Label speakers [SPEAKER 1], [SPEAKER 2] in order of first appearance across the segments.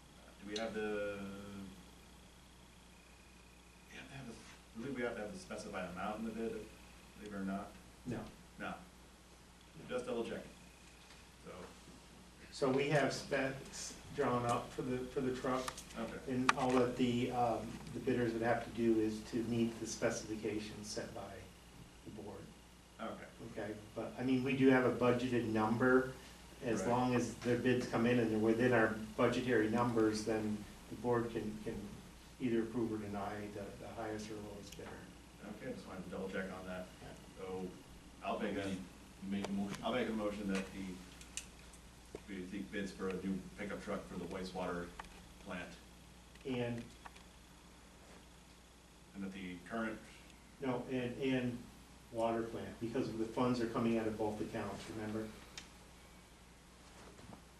[SPEAKER 1] have to, you have to have, a- I believe we have to have a specified amount in the bid, believe it or not,
[SPEAKER 2] No.
[SPEAKER 1] no. Just double check. So,
[SPEAKER 2] So we have specs drawn up for the, for the truck,
[SPEAKER 1] okay,
[SPEAKER 2] and all that the, um, the bidders would have to do is to meet the specifications set by the board,
[SPEAKER 1] okay,
[SPEAKER 2] okay? But, I mean, we do have a budgeted number, as
[SPEAKER 1] Right.
[SPEAKER 2] long as their bids come in and they're within our budgetary numbers, then the board can, can either approve or deny the, the highest or lowest bidder.
[SPEAKER 1] okay, just wanted to double check on that.
[SPEAKER 2] Yeah.
[SPEAKER 1] So, I'll make a,
[SPEAKER 3] Make a motion.
[SPEAKER 1] I'll make a motion that the, we seek bids for a new pickup truck for the wastewater plant,
[SPEAKER 2] And,
[SPEAKER 1] and that the current,
[SPEAKER 2] no, and, and water plant, because the funds are coming out of both accounts, remember?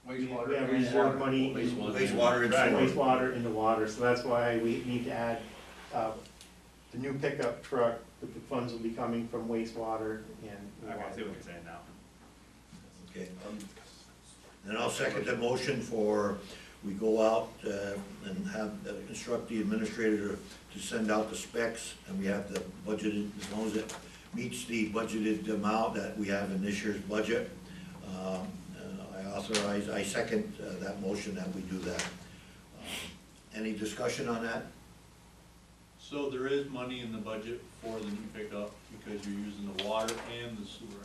[SPEAKER 2] We have reserve money. in-
[SPEAKER 3] Wastewater.
[SPEAKER 4] Wastewater and
[SPEAKER 1] Right.
[SPEAKER 4] sewer.
[SPEAKER 2] wastewater into water, so that's why we need to add, uh, the new pickup truck, that the funds will be coming from wastewater and
[SPEAKER 1] okay, I see
[SPEAKER 2] water.
[SPEAKER 1] what you're saying now.
[SPEAKER 4] Okay, um, Then I'll second the motion for, we go out uh, and have, uh, instruct the administrator to send out the specs, and we have the budgeted, as long as it meets the budgeted amount that we have in this year's budget. um, uh, I authorize, I second uh, that motion that we do that. Um, Any discussion on that?
[SPEAKER 3] So there is money in the budget for the new pickup because you're using the water and the sewer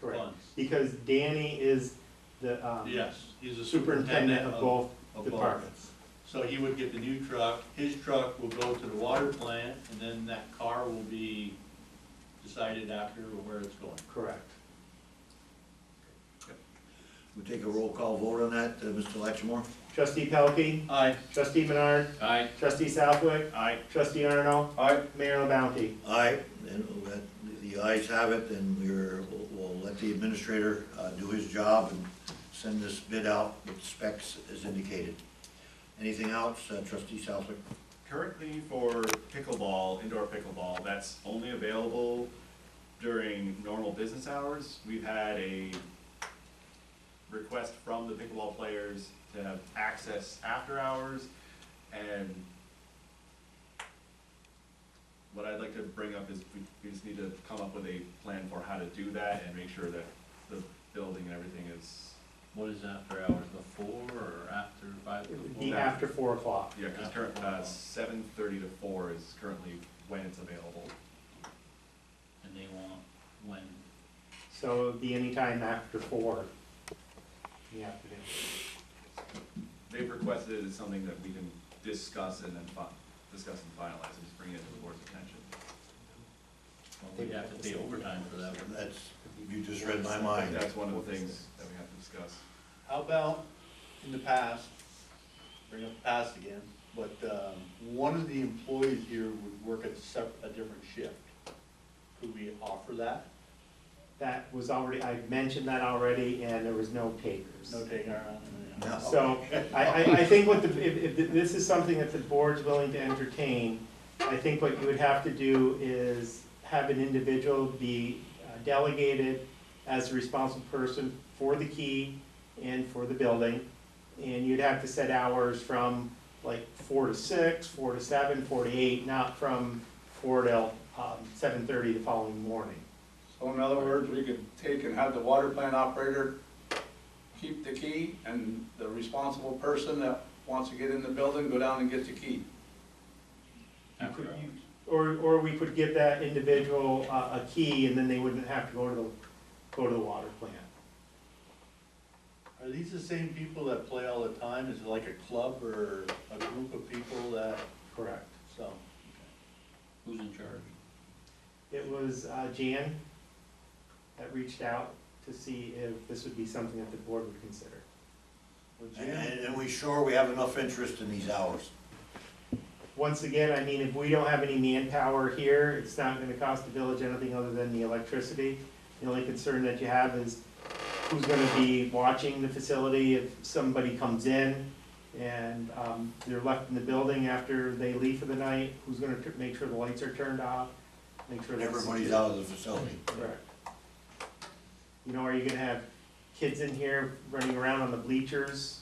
[SPEAKER 2] Correct,
[SPEAKER 3] funds.
[SPEAKER 2] because Danny is the, um,
[SPEAKER 3] Yes, he's a
[SPEAKER 2] superintendent of both
[SPEAKER 3] of both.
[SPEAKER 2] departments.
[SPEAKER 3] So he would get the new truck, his truck will go to the water plant, and then that car will be decided after where it's going.
[SPEAKER 2] Correct.
[SPEAKER 4] We take a roll call vote on that, uh, Mr. Latchmore?
[SPEAKER 2] Trustee Pelkey,
[SPEAKER 3] Aye.
[SPEAKER 2] trustee Menard,
[SPEAKER 3] Aye.
[SPEAKER 2] trustee Southwick,
[SPEAKER 1] Aye,
[SPEAKER 2] trustee Arno,
[SPEAKER 3] Aye.
[SPEAKER 2] Mayor LaBounty.
[SPEAKER 4] Aye, and that, the ayes have it, and we're, we'll- we'll let the administrator uh, do his job and send this bid out with specs as indicated. Anything else, uh, trustee Southwick?
[SPEAKER 1] Currently for pickleball, indoor pickleball, that's only available during normal business hours. We've had a request from the pickleball players to have access after hours and what I'd like to bring up is we, we just need to come up with a plan for how to do that and make sure that the building and everything is,
[SPEAKER 5] What is after hours, before or after five?
[SPEAKER 2] It would
[SPEAKER 5] before?
[SPEAKER 2] be after four o'clock.
[SPEAKER 1] yeah, cause current, uh, seven thirty to four is currently when it's available.
[SPEAKER 5] And they want when,
[SPEAKER 2] So it'd be any time after four in the afternoon.
[SPEAKER 1] They've requested it as something that we can discuss and then fi- discuss and finalize and just bring it to the board's attention.
[SPEAKER 5] well, we'd have to pay overtime for that. wouldn't we?
[SPEAKER 4] That's, you just read my mind.
[SPEAKER 1] That's one of the things that we have to discuss.
[SPEAKER 3] How about in the past, bring up the past again, but, um, one of the employees here would work a sep- a different shift. Could we offer that?
[SPEAKER 2] That was already, I mentioned that already, and there was no
[SPEAKER 3] No
[SPEAKER 2] takers.
[SPEAKER 3] take our, no,
[SPEAKER 4] No.
[SPEAKER 2] So, I, I, I think what the, if, if this is something that the board's willing to entertain, I think what you would have to do is have an individual be uh, delegated as a responsible person for the key and for the building. And you'd have to set hours from like four to six, four to seven, four to eight, not from four till, um, seven thirty the following morning.
[SPEAKER 6] So in other words, we could take and have the water plant operator keep the key and the responsible person that wants to get in the building, go down and get the key.
[SPEAKER 2] You
[SPEAKER 5] After
[SPEAKER 2] could-
[SPEAKER 5] hours.
[SPEAKER 2] you- Or, or we could give that individual a, a key and then they wouldn't have to go to the, go to the water plant.
[SPEAKER 3] Are these the same people that play all the time? Is it like a club or a group of people that,
[SPEAKER 2] Correct.
[SPEAKER 3] so?
[SPEAKER 5] Who's in charge?
[SPEAKER 2] It was uh, Jan that reached out to see if this would be something that the board would consider.
[SPEAKER 3] would you-
[SPEAKER 4] And, and we sure we have enough interest in these hours?
[SPEAKER 2] Once again, I mean, if we don't have any manpower here, it's not gonna cost the village anything other than the electricity. The only concern that you have is who's gonna be watching the facility if somebody comes in and, um, they're left in the building after they leave for the night, who's gonna tr- make sure the lights are turned off, make sure.
[SPEAKER 4] And
[SPEAKER 2] that it's
[SPEAKER 4] everybody's
[SPEAKER 2] secure.
[SPEAKER 4] out of the facility.
[SPEAKER 2] Correct. You know, are you gonna have kids in here running around on the bleachers